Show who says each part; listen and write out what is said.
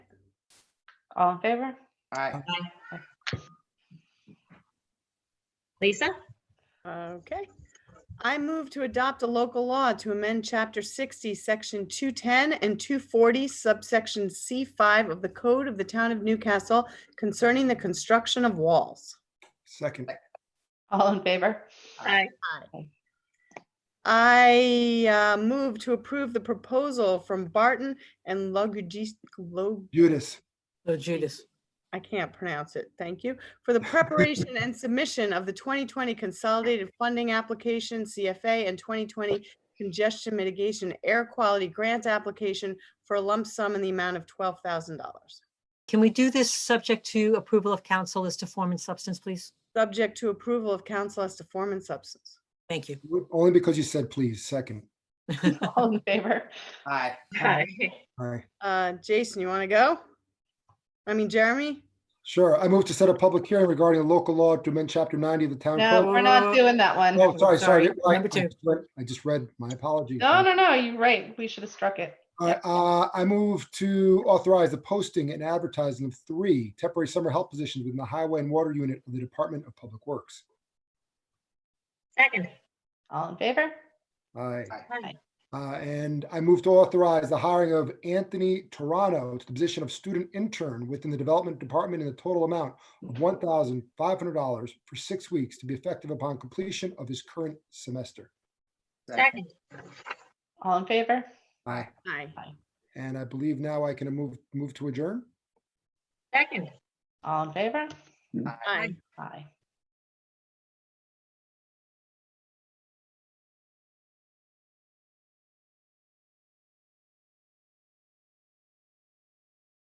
Speaker 1: All in favor?
Speaker 2: Aye.
Speaker 3: Lisa?
Speaker 4: Okay. I move to adopt a local law to amend Chapter 60, Section 210 and 240, subsection C5 of the Code of the Town of Newcastle concerning the construction of walls.
Speaker 2: Second,
Speaker 1: All in favor?
Speaker 3: Aye.
Speaker 4: I uh, move to approve the proposal from Barton and Logis- Log,
Speaker 2: Judas.
Speaker 5: Oh, Judas.
Speaker 4: I can't pronounce it, thank you, for the preparation and submission of the 2020 Consolidated Funding Application, CFA, and 2020 Congestion Mitigation Air Quality Grant Application for a lump sum in the amount of $12,000.
Speaker 5: Can we do this subject to approval of council as to form and substance, please?
Speaker 4: Subject to approval of council as to form and substance.
Speaker 5: Thank you.
Speaker 2: Only because you said please, second.
Speaker 1: All in favor?
Speaker 6: Aye.
Speaker 2: Aye.
Speaker 4: Uh, Jason, you want to go? I mean, Jeremy?
Speaker 2: Sure. I move to set a public hearing regarding a local law to amend chapter ninety of the town.
Speaker 1: No,
Speaker 2: code.
Speaker 1: we're not doing that one.
Speaker 2: Oh, sorry, sorry.
Speaker 5: Sorry,
Speaker 2: I-
Speaker 5: number two.
Speaker 2: I just read- I just read, my apology.
Speaker 1: No, no, no, you're right. We should have struck it.
Speaker 2: I, uh, I move to authorize the posting and advertising of three temporary summer help positions within the Highway and Water Unit of the Department of Public Works.
Speaker 3: Second.
Speaker 1: All in favor?
Speaker 2: Aye.
Speaker 3: Aye.
Speaker 2: Uh, and I move to authorize the hiring of Anthony Toronto to the position of student intern within the Development Department in the total amount of one thousand five hundred dollars for six weeks to be effective upon completion of his current semester.
Speaker 3: Second.
Speaker 1: All in favor?
Speaker 2: Aye.
Speaker 4: Aye.
Speaker 2: And I believe now I can move, move to adjourn.
Speaker 3: Second.
Speaker 1: All in favor?
Speaker 4: Aye.
Speaker 1: Aye.